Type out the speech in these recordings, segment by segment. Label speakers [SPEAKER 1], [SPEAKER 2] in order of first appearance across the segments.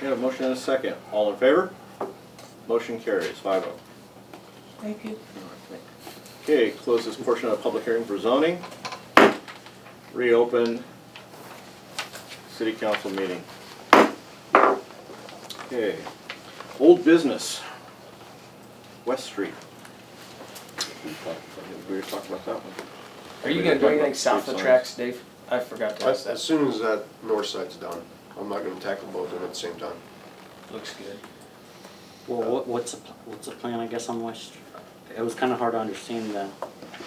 [SPEAKER 1] We have a motion and a second. All in favor? Motion carries, five oh.
[SPEAKER 2] Thank you.
[SPEAKER 1] Okay, close this portion of the public hearing for zoning. Reopen city council meeting. Okay, old business, West Street. We were talking about that one.
[SPEAKER 3] Are you gonna do anything south of the tracks, Dave? I forgot to ask
[SPEAKER 4] As, as
[SPEAKER 3] that.
[SPEAKER 4] soon as that north side's done, I'm not gonna tackle both of them at the same time.
[SPEAKER 3] Looks good.
[SPEAKER 5] Well, what, what's, the pl- what's the plan, I guess, on West, it was kinda hard to understand the,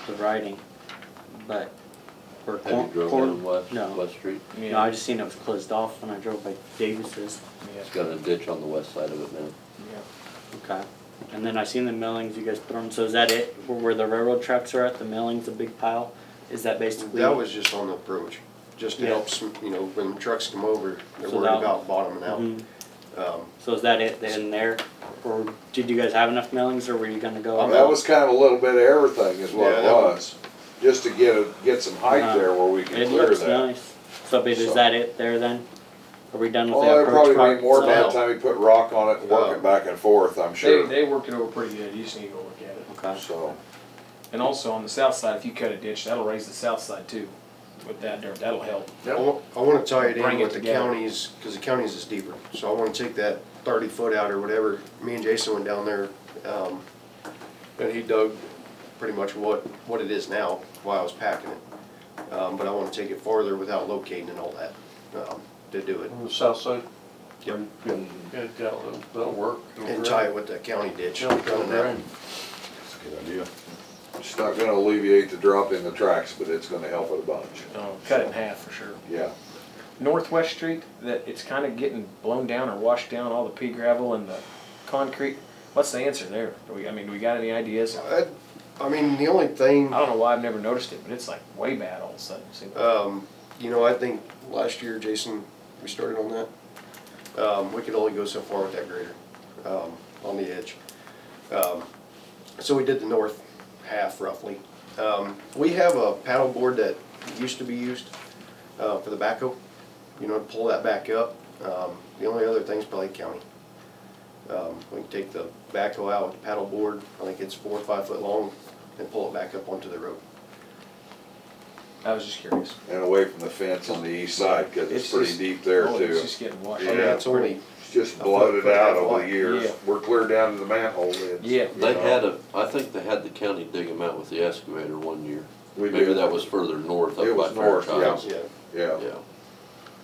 [SPEAKER 5] the writing, but. we're
[SPEAKER 6] Have you
[SPEAKER 5] cor-
[SPEAKER 6] drove
[SPEAKER 5] cor-
[SPEAKER 6] down West,
[SPEAKER 5] No,
[SPEAKER 6] West Street?
[SPEAKER 5] no, I just seen it was closed off when I drove by Davis's,
[SPEAKER 3] Yeah.
[SPEAKER 6] It's got a ditch on the west side of it now.
[SPEAKER 3] Yeah.
[SPEAKER 5] okay. And then I seen the millings you guys put on, so is that it, where where the railroad tracks are at, the millings, a big pile, is that basically?
[SPEAKER 4] That was just on the approach, just to
[SPEAKER 5] Mm-hmm. Yeah.
[SPEAKER 4] help, sm- you know, when trucks come over, they're
[SPEAKER 5] So
[SPEAKER 4] worried
[SPEAKER 5] that-
[SPEAKER 4] about bottoming
[SPEAKER 5] Mhm.
[SPEAKER 4] out. Um,
[SPEAKER 5] So is that it in there, or did you guys have enough millings, or were you gonna
[SPEAKER 6] Oh,
[SPEAKER 5] go?
[SPEAKER 4] I'm
[SPEAKER 7] That was kind of a little bit of everything is what
[SPEAKER 4] Yeah,
[SPEAKER 7] it
[SPEAKER 4] that
[SPEAKER 7] was, just to get, a- get some height
[SPEAKER 5] Uh,
[SPEAKER 7] there where we can
[SPEAKER 5] It
[SPEAKER 7] clear
[SPEAKER 5] looks
[SPEAKER 7] that.
[SPEAKER 5] nice, so but is
[SPEAKER 7] So-
[SPEAKER 5] that it there then? Are we done with
[SPEAKER 7] Well,
[SPEAKER 5] the
[SPEAKER 7] there
[SPEAKER 5] approach
[SPEAKER 7] probably
[SPEAKER 5] part?
[SPEAKER 7] made more by the
[SPEAKER 4] so-
[SPEAKER 7] time he put rock on it and work
[SPEAKER 4] Yeah.
[SPEAKER 7] it back and forth, I'm
[SPEAKER 3] They,
[SPEAKER 7] sure,
[SPEAKER 3] they worked it over pretty good, you just need to go look at it.
[SPEAKER 5] Okay,
[SPEAKER 7] so.
[SPEAKER 3] And also on the south side, if you cut a ditch, that'll raise the south side too, with that dirt, that'll help.
[SPEAKER 4] I wa- I wanna tie it
[SPEAKER 3] Bring
[SPEAKER 4] in
[SPEAKER 3] it
[SPEAKER 4] with the
[SPEAKER 3] together.
[SPEAKER 4] counties, cause the counties is deeper, so I wanna take that thirty foot out or whatever, me and Jason went down there, um, and he dug pretty much what, what it is now, while I was packing it. Um, but I wanna take it farther without locating and all that, um, to do
[SPEAKER 5] Mm-hmm.
[SPEAKER 4] it,
[SPEAKER 8] On the south side?
[SPEAKER 4] Yep.
[SPEAKER 8] Yeah, yeah, that'll, that'll work.
[SPEAKER 4] and tie it with the county ditch.
[SPEAKER 8] It'll come around.
[SPEAKER 1] That's a good idea.
[SPEAKER 7] It's not gonna alleviate the drop in the tracks, but it's gonna help it a bunch,
[SPEAKER 3] Uh, Cut it in half for sure.
[SPEAKER 7] yeah.
[SPEAKER 3] Northwest Street, that it's kind of getting blown down or washed down, all the pea gravel and the concrete. What's the answer there? Do we, I mean, do we got any ideas? I
[SPEAKER 4] I, I mean, the only thing,
[SPEAKER 3] don't know why I've never noticed it, but it's like way bad all of a sudden. See,
[SPEAKER 7] Uh,
[SPEAKER 4] um, you know, I think last year, Jason, we started on that. Um, we could only go so far with that grader, um, on the edge. Um, so we did the north half roughly. Um, we have a paddle board that used to be used, uh, for the backhoe, you know, to pull that back up. Um, the only other thing's probably county. Um, we can take the backhoe out with the paddle board, I think it's four or five foot long, and pull it back up onto the road.
[SPEAKER 3] I was just curious.
[SPEAKER 7] And away from the fence on the east side, cause
[SPEAKER 3] It's
[SPEAKER 7] it's pretty
[SPEAKER 3] just-
[SPEAKER 7] deep there
[SPEAKER 3] Oh,
[SPEAKER 7] too.
[SPEAKER 3] It's just getting washed.
[SPEAKER 7] Yeah.
[SPEAKER 4] Yeah, it's only,
[SPEAKER 7] It's just
[SPEAKER 4] a foot,
[SPEAKER 7] bloated
[SPEAKER 4] foot and a
[SPEAKER 7] out
[SPEAKER 4] half
[SPEAKER 7] over
[SPEAKER 4] wide.
[SPEAKER 7] the
[SPEAKER 3] Yeah.
[SPEAKER 7] years, we're clear down to the manhole lids.
[SPEAKER 3] Yeah.
[SPEAKER 7] you
[SPEAKER 6] They
[SPEAKER 7] know.
[SPEAKER 6] had a, I think they had the county dig them out with the excavator one year.
[SPEAKER 7] We
[SPEAKER 6] Maybe
[SPEAKER 7] did.
[SPEAKER 6] that was further north
[SPEAKER 7] It
[SPEAKER 6] up by
[SPEAKER 7] was north,
[SPEAKER 6] Fairchild.
[SPEAKER 4] yeah.
[SPEAKER 7] Yeah,
[SPEAKER 6] Yeah.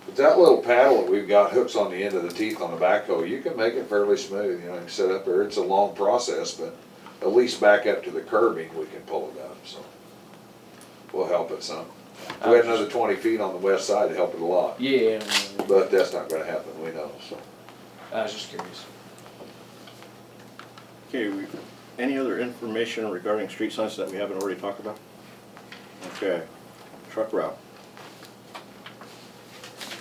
[SPEAKER 7] but that little paddle that we've got hooks on the end of the teeth on the backhoe, you can make it fairly smooth, you know, you can set up there, it's a long process, but at least back up to the curbing, we can pull it up, so. Well help it some. If We had another twenty feet on the west side to help it a lot,
[SPEAKER 3] Yeah, I know.
[SPEAKER 7] but that's not gonna happen, we know, so.
[SPEAKER 3] I was just curious.
[SPEAKER 1] Okay, we, any other information regarding street signs that we haven't already talked about? Okay, truck route.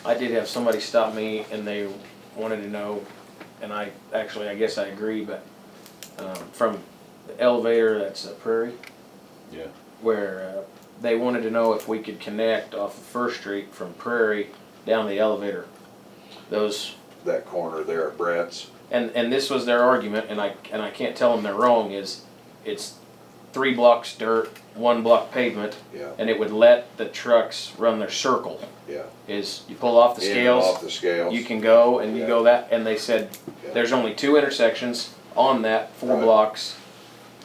[SPEAKER 3] I did have somebody stop me and they wanted to know, and I, actually, I guess I agree, but, um, from the elevator that's at Prairie.
[SPEAKER 1] Yeah.
[SPEAKER 3] Where, uh, they wanted to know if we could connect off of First Street from Prairie down the elevator. Those,
[SPEAKER 7] That corner there at Brett's,
[SPEAKER 3] and, and this was their argument, and I, and I can't tell them they're wrong, is it's three blocks dirt, one block pavement,
[SPEAKER 7] yeah,
[SPEAKER 3] and it would let the trucks run their circle.
[SPEAKER 7] yeah.
[SPEAKER 3] Is you pull off the
[SPEAKER 7] In and
[SPEAKER 3] scales.
[SPEAKER 7] Off the scales.
[SPEAKER 3] you can go and you
[SPEAKER 7] Yeah.
[SPEAKER 3] go that, and they said,
[SPEAKER 7] Yeah.
[SPEAKER 3] there's only two intersections on that, four
[SPEAKER 7] Right.
[SPEAKER 3] blocks.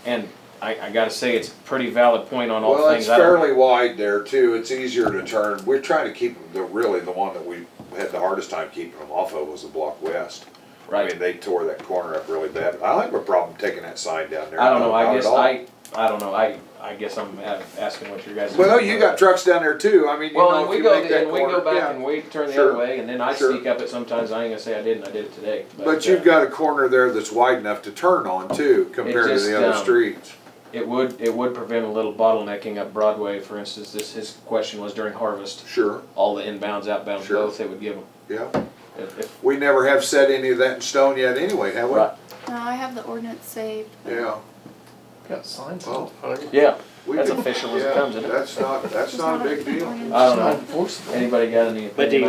[SPEAKER 3] And I, I gotta say, it's a pretty valid point on all
[SPEAKER 7] Well,
[SPEAKER 3] things.
[SPEAKER 7] it's
[SPEAKER 3] I don't-
[SPEAKER 7] fairly wide there too. It's easier to turn. We're trying to keep the, really the one that we had the hardest time keeping them off of was the block west. I mean,
[SPEAKER 3] Right,
[SPEAKER 7] they tore that corner up really bad. I don't have a problem taking that sign down there.
[SPEAKER 3] I don't know,
[SPEAKER 7] Not
[SPEAKER 3] I
[SPEAKER 7] at
[SPEAKER 3] guess,
[SPEAKER 7] all.
[SPEAKER 3] I, I don't know, I, I guess I'm a- asking what your guys.
[SPEAKER 7] Well, you got trucks down there too. I mean, you
[SPEAKER 3] Well,
[SPEAKER 7] know,
[SPEAKER 3] and
[SPEAKER 7] if
[SPEAKER 3] we
[SPEAKER 7] you
[SPEAKER 3] go,
[SPEAKER 7] make that
[SPEAKER 3] and we go
[SPEAKER 7] corner,
[SPEAKER 3] back
[SPEAKER 7] yeah.
[SPEAKER 3] and we turn the
[SPEAKER 7] Sure.
[SPEAKER 3] other way, and then I
[SPEAKER 7] Sure.
[SPEAKER 3] sneak up it sometimes, I ain't gonna say I didn't, I did it today.
[SPEAKER 7] But
[SPEAKER 3] uh,
[SPEAKER 7] you've got a corner there that's wide enough to turn on too, compared to
[SPEAKER 3] just,
[SPEAKER 7] the other
[SPEAKER 3] um,
[SPEAKER 7] streets.
[SPEAKER 3] It would, it would prevent a little bottlenecking up Broadway, for instance, this, his question was during harvest,
[SPEAKER 7] Sure,
[SPEAKER 3] all the inbounds, outbounds,
[SPEAKER 7] Sure.
[SPEAKER 3] both, they would give them.
[SPEAKER 7] yeah.
[SPEAKER 3] If- if-
[SPEAKER 7] We never have set any of that in stone yet anyway, have we?
[SPEAKER 3] Right.
[SPEAKER 9] No, I have the ordinance saved. but-
[SPEAKER 7] Yeah.
[SPEAKER 8] Got signs
[SPEAKER 7] Well,
[SPEAKER 8] on it.
[SPEAKER 3] Yeah,
[SPEAKER 7] we
[SPEAKER 3] That's
[SPEAKER 7] could-
[SPEAKER 3] official as it
[SPEAKER 7] yeah,
[SPEAKER 3] comes, isn't it?
[SPEAKER 7] That's not, that's
[SPEAKER 9] It's
[SPEAKER 7] not a
[SPEAKER 9] an
[SPEAKER 7] big deal.
[SPEAKER 9] ordinance.
[SPEAKER 3] I
[SPEAKER 8] Not
[SPEAKER 3] don't know.
[SPEAKER 8] enforceable.
[SPEAKER 3] Anybody got any opinion
[SPEAKER 5] But do you
[SPEAKER 3] on